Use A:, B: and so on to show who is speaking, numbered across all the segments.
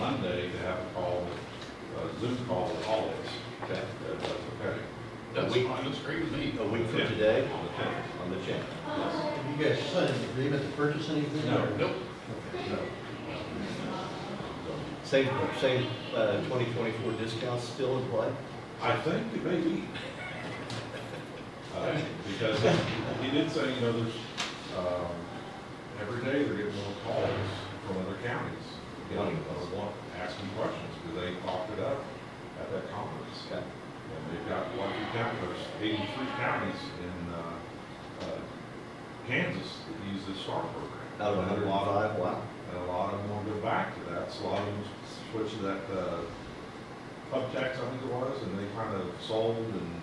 A: Monday to have a call, a Zoom call with all of us, if that, if that's okay.
B: That's fine, that's great with me.
C: A week from today,
A: On the tenth.
C: on the tenth.
D: Have you guys signed an agreement to purchase anything?
A: No.
D: or-
B: Nope.
D: Okay, no.
C: Same, same, uh, twenty twenty-four discounts still in play?
A: I think it may be. Uh, Because he did say, you know, there's, um, every day they're getting more calls from other counties. You know, they want, asking questions, because they talked it up at that conference.
C: Okay.
A: And they've got lucky counties, there's eighty-three counties in, uh, uh, Kansas that use this STAR program.
C: Out of a hundred and five, wow.
A: And a lot of them will go back to that, so a lot of them switched to that, uh, pub tax, I think it was, and they kind of sold, and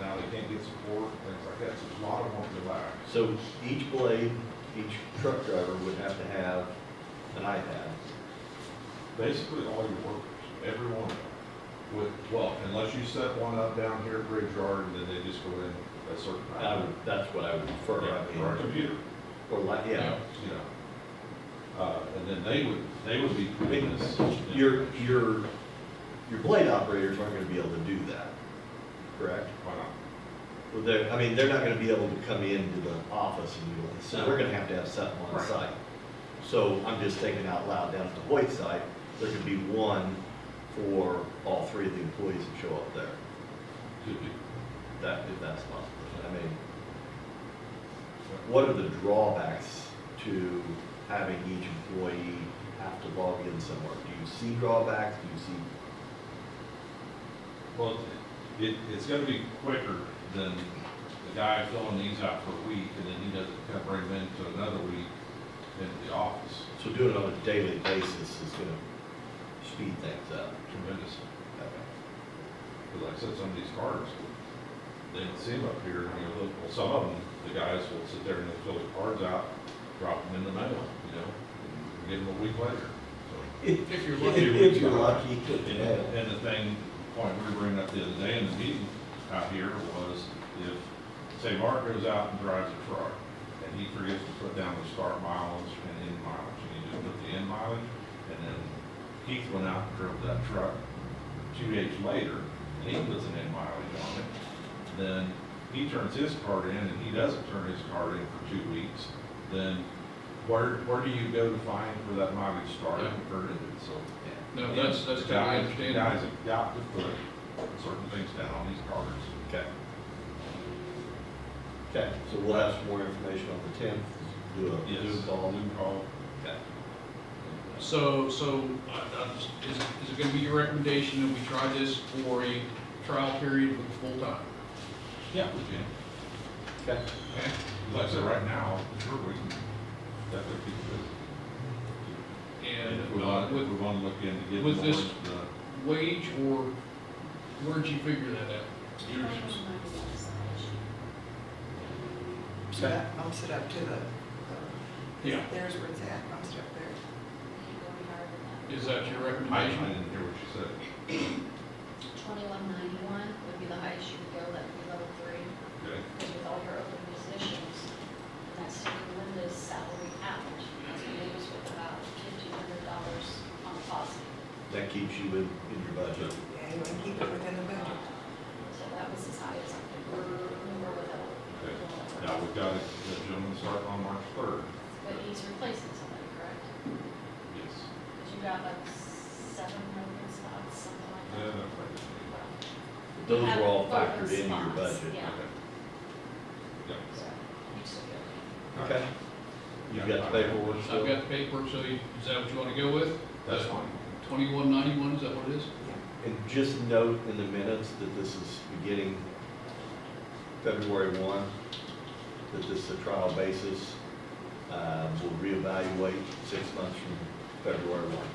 A: now they can't get support, things like that, so there's a lot of them won't go back.
C: So each blade, each truck driver would have to have an iPad.
A: Basically, all your workers, every one of them, with, well, unless you set one up down here at Bridge Yard, and then they just go in a certain
C: I
A: time.
C: would, that's what I would
A: Or,
C: prefer.
A: or a computer,
C: Or like, yeah.
A: you know. Uh, and then they would, they would be putting this.
C: Your, your, your blade operators aren't gonna be able to do that, correct?
A: Why not?
C: Well, they're, I mean, they're not gonna be able to come into the office and do it, so they're gonna have to have something on
A: Right.
C: site. So I'm just thinking out loud, down at the Hoyt site, there could be one for all three of the employees that show up there,
A: Could be.
C: that, if that's possible. I mean, what are the drawbacks to having each employee have to log in somewhere? Do you see drawbacks, do you see
A: Well, it, it's gonna be quicker than the guy filling these out for a week, and then he doesn't come bring them into another week into the office
C: So doing it on a daily basis is gonna speed things up.
A: tremendously. Because like I said, some of these cards, they don't see them up here, and you look, well, some of them, the guys will sit there and they'll fill the cards out, drop them in the mail, you know, and get them a week later. So,
B: If you're
A: lucky.
C: If you're lucky.
A: And,
C: yeah.
A: and the thing, point we were bringing up the other day in the meeting out here was if, say, Mark goes out and drives a truck, and he forgets to put down the start mileage and end mileage, and he just put the end mileage, and then Keith went out and drove that truck two days later, and he puts an end mileage on it, then he turns his card in, and he doesn't turn his card in for two weeks, then where, where do you go to find where that mileage started and where it ended, so.
B: No, that's, that's kind of my understanding.
A: Guys have got to put certain things down on these cards.
C: Okay. Okay, so we'll have some more information on the tenth, do a Zoom call.
A: Zoom call.
C: Okay.
B: So, so, uh, uh, is, is it gonna be your recommendation that we try this for a trial period with full time?
A: Yeah, we can.
C: Okay.
B: Okay?
A: Like I said, right now, sure, we can definitely keep it.
B: And
A: If we
B: uh,
A: want, if
B: with
A: we want to look in to get more
B: with
A: into
B: this-
A: the,
B: wage or, where'd you figure that out?
A: yours,
E: So that bumps it up to the, uh,
B: Yeah.
E: there's where it's at, bumps it up there.
B: Is that your
A: I I
B: recommendation?
A: didn't hear what you said.
F: Twenty-one ninety-one would be the highest you could go, that would be level three,
A: Okay,
F: because with all your open positions, and that's taking Linda's salary out, that's gonna leave us with about fifteen hundred dollars on the positive.
C: That keeps you in, in your budget.
E: Yeah, you want to keep it within the budget.
F: So that was as high as I could, go. we were without.
A: okay. Now, we've got a a gentleman starting on March third.
F: But he's replacing somebody, correct?
A: Yes.
F: Because you got like seven open spots, something like
A: Yeah,
F: that.
A: that's right.
C: Those
F: Have
C: were all
F: open
C: factored into your
F: spots,
C: budget.
F: Yeah,
A: Okay. Yeah.
F: so, you still good.
C: Okay. You've got the paperwork
B: I've
C: still?
B: got the paperwork, so you- is that what you wanna go with?
A: That's fine.
B: Twenty-one ninety-one, is that what it is?
C: And just note in the minutes that this is beginning February one, that this is a trial basis. Uh, we'll reevaluate six months from February one.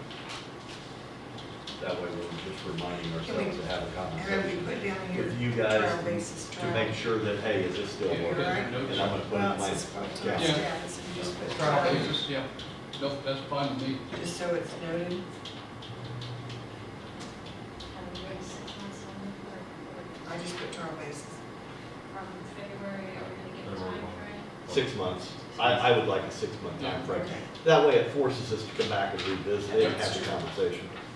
C: That way we're just reminding ourselves to have a
E: And we
C: conversation
E: put down here.
C: with you guys
E: Trial basis
C: to make
E: trial.
C: sure that, hey, is this still
B: Yeah,
C: working?
B: there's no-
C: And I'm gonna put it in
E: Well,
C: my,
E: it's just part-time
C: yeah,
B: Yeah.
E: staff, so you just put
B: Trial
E: trial,
B: basis, yeah. Nope, that's fine with me.
E: just so it's noted.
F: Have a great six months on the board.
E: I just put trial basis.
F: From February, are we gonna get a
A: February one.
F: timeframe?
C: six months. I, I would like a six-month
B: Yeah.
C: timeframe.
E: Okay.
C: That way it forces us to come back and revisit it and have the conversation.